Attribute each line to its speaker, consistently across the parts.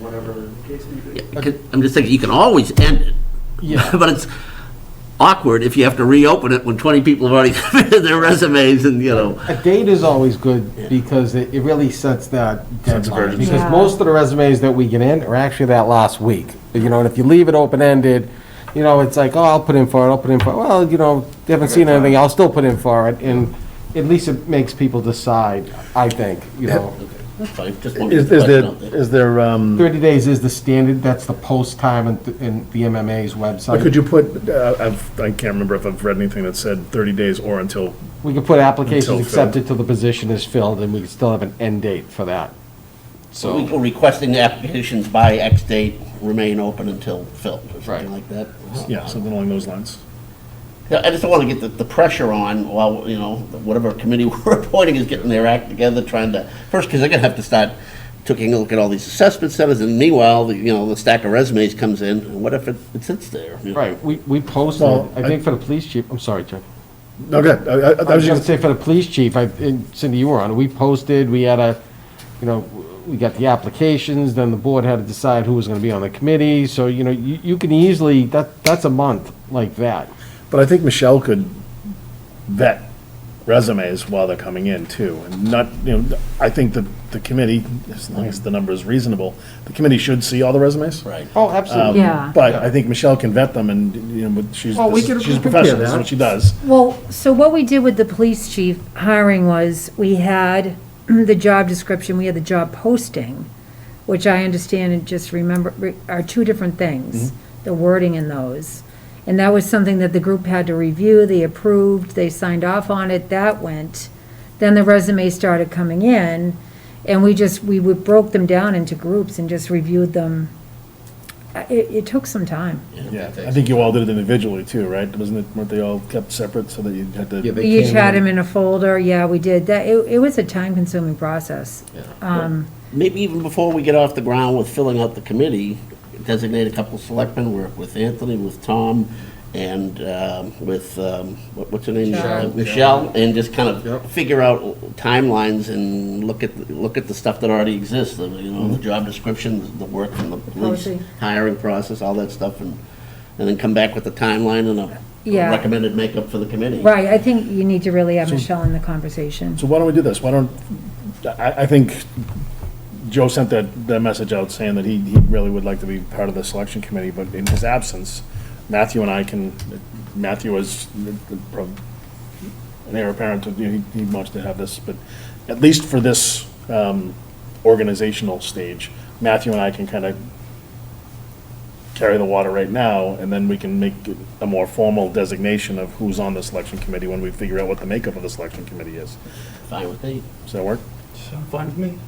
Speaker 1: whatever the case may be.
Speaker 2: Because I'm just thinking, you can always end it.
Speaker 3: Yeah.
Speaker 2: But it's awkward if you have to reopen it when 20 people have already submitted their resumes and, you know.
Speaker 3: A date is always good because it it really sets that
Speaker 4: Sense of
Speaker 3: deadline.
Speaker 4: urgency.
Speaker 3: Because
Speaker 5: Yeah.
Speaker 3: most of the resumes that we get in are actually that last week. You know, and if you leave it open-ended, you know, it's like, oh, I'll put in for it, I'll put in for it. Well, you know, they haven't seen anything, I'll still put in for it. And at least it makes people decide, I think, you know.
Speaker 2: That's fine, just
Speaker 4: Is is there, is there, um,
Speaker 3: 30 days is the standard, that's the post time in th- in the MMA's website.
Speaker 4: could you put, uh, I've, I can't remember if I've read anything that said 30 days or until,
Speaker 3: We could put
Speaker 4: Until
Speaker 3: applications
Speaker 4: filled.
Speaker 3: accepted till the position is filled, and we could still have an end date for that. So,
Speaker 2: We're requesting the applications by X date remain open until filled, or something
Speaker 3: Right.
Speaker 2: like that.
Speaker 4: yeah, something along those lines.
Speaker 2: Yeah, I just don't want to get the, the pressure on while, you know, whatever committee we're appointing is getting their act together, trying to, first, because they're going to have to start taking a look at all these assessment centers, and meanwhile, the- you know, the stack of resumes comes in, and what if it it sits there? you know?
Speaker 3: right, we, we posted,
Speaker 4: Well,
Speaker 3: I think for the police chief, I'm sorry, Chuck.
Speaker 4: No, good, I- I,
Speaker 3: I
Speaker 4: I
Speaker 3: was
Speaker 4: was
Speaker 3: gonna
Speaker 4: just,
Speaker 3: say for the police chief, I, and Cindy, you were on, it. we posted, we had a, you know, we got the applications, then the board had to decide who was gonna be on the committee, so, you know, you, you can easily, that, that's a month like that.
Speaker 4: but I think Michelle could vet resumes while they're coming in too, and not, you know, I think that the committee, as long as the number is reasonable, the committee should see all the resumes. Um,
Speaker 2: Right.
Speaker 3: Oh,
Speaker 4: Uh,
Speaker 3: absolutely.
Speaker 5: Yeah.
Speaker 4: But I think Michelle can vet them and, you know, but she's,
Speaker 3: Well, we could-
Speaker 4: she's a
Speaker 3: we could
Speaker 4: professional,
Speaker 3: do
Speaker 4: that's
Speaker 3: that.
Speaker 4: what she does.
Speaker 5: Well, so what we did with the police chief hiring was, we had the job description, we had the job posting, which I understand and just remember are two different things, the wording in those. And that was something that the group had to review, they approved, they signed off on it, that went. Then the resumes started coming in, and we just, we would- broke them down into groups and just reviewed them. Uh, It, it took some time.
Speaker 4: Yeah, I think you all did it individually too, right? Wasn't it, weren't they all kept separate so that you had to?
Speaker 3: Yeah, they-
Speaker 5: We each
Speaker 3: came
Speaker 5: had
Speaker 3: in.
Speaker 5: them in a folder, yeah, we did. That, it, it was a time-consuming process.
Speaker 2: Maybe even before we get off the ground with filling out the committee, designate a couple of selectmen, work with Anthony, with Tom, and um, with, um, what- what's her name?
Speaker 5: Michelle.
Speaker 2: Uh, Michelle, and just kind of
Speaker 3: Yep.
Speaker 2: figure out timelines and look at, look at the stuff that already exists, the, you know, the job descriptions, the work from the police,
Speaker 5: Policy.
Speaker 2: hiring process, all that stuff, and, and then come back with a timeline and a
Speaker 5: Yeah.
Speaker 2: recommended makeup for the committee.
Speaker 5: Right, I think you need to really have Michelle in the conversation.
Speaker 4: So why don't we do this? Why don't, I, I think Joe sent that, that message out saying that he, he really would like to be part of the selection committee, but in his absence, Matthew and I can, Matthew is the- the pro- an heir apparent, you know, he, he wants to have this, but at least for this, um, organizational stage, Matthew and I can kind of carry the water right now, and then we can make a more formal designation of who's on the selection committee when we figure out what the makeup of the selection committee is.
Speaker 2: Fine with me.
Speaker 4: Does that work?
Speaker 1: Fine with me.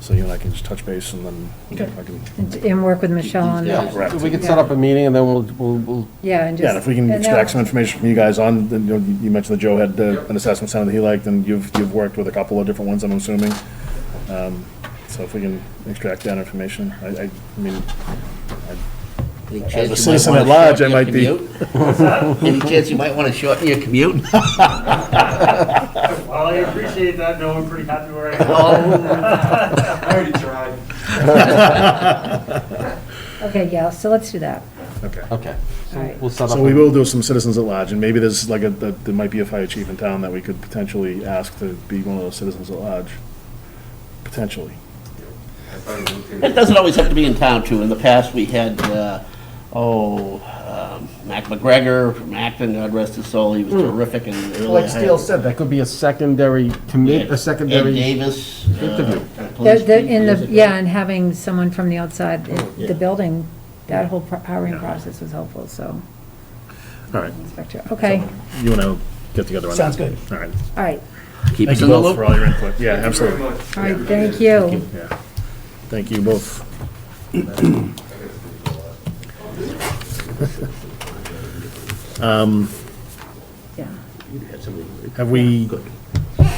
Speaker 4: So you and I can just touch base and then I can,
Speaker 5: And- And work with Michelle on
Speaker 2: Yeah.
Speaker 5: that,
Speaker 4: Correct.
Speaker 3: We could set up a meeting, and then we'll, we'll, we'll
Speaker 5: yeah, and just.
Speaker 4: yeah, and if we can
Speaker 5: and
Speaker 4: extract some
Speaker 5: that-
Speaker 4: information from you guys on, then, you know, you mentioned that Joe had uh, an assessment center that he liked, and you've, you've worked with a couple of different ones, I'm assuming. Um, So if we can extract that information, I, I I mean,
Speaker 2: Any chance you
Speaker 4: as a
Speaker 2: might
Speaker 4: citizen
Speaker 2: wanna
Speaker 4: at large, I
Speaker 2: shorten your
Speaker 4: might be.
Speaker 2: commute? Any chance you might want to shorten your commute?
Speaker 6: Well, I appreciate that, no, I'm pretty happy where I am.
Speaker 1: I already tried.
Speaker 5: Okay, yeah, so let's do that.
Speaker 4: Okay.
Speaker 3: Okay.
Speaker 5: All right.
Speaker 3: We'll set up.
Speaker 4: So we will do some citizens at large, and maybe there's like a, that- there might be a fire chief in town that we could potentially ask to be one of those citizens at large, potentially.
Speaker 2: It doesn't always have to be in town, too. In the past, we had, uh, oh, um, Mac McGregor from Acton, God rest his soul, he was terrific and really.
Speaker 3: Like Steele said, that could be a secondary commit, a
Speaker 2: Ed
Speaker 3: secondary.
Speaker 2: Davis. uh,
Speaker 3: interview.
Speaker 2: police
Speaker 5: The- the-
Speaker 2: chief
Speaker 5: in
Speaker 2: years
Speaker 5: the-
Speaker 2: ago.
Speaker 5: Yeah, and having someone from the outside, the-
Speaker 4: Oh,
Speaker 2: Yeah.
Speaker 5: the building, that whole pro- hiring process was helpful, so,
Speaker 4: All right,
Speaker 5: Inspector, okay,
Speaker 4: you and I will get together on that.
Speaker 7: Sounds good.
Speaker 4: All right.
Speaker 5: all right,
Speaker 2: Keep us
Speaker 4: Thank you
Speaker 2: in the
Speaker 4: both for
Speaker 2: loop.
Speaker 4: all your input. Yeah, absolutely.
Speaker 5: all right, thank you.
Speaker 4: Yeah, thank you both.
Speaker 5: Yeah.
Speaker 4: Have we,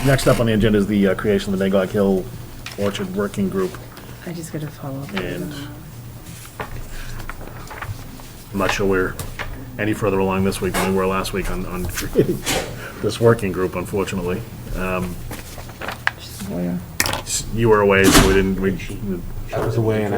Speaker 4: next up on the agenda is the uh, creation of the Nagog Hill Orchard Working Group,
Speaker 5: I just got to follow up.
Speaker 4: and I'm not sure we're any further along this week than we were last week on, on creating this working group, unfortunately.
Speaker 5: She's a lawyer.
Speaker 4: You were away, so we didn't, we
Speaker 3: That was the way, and I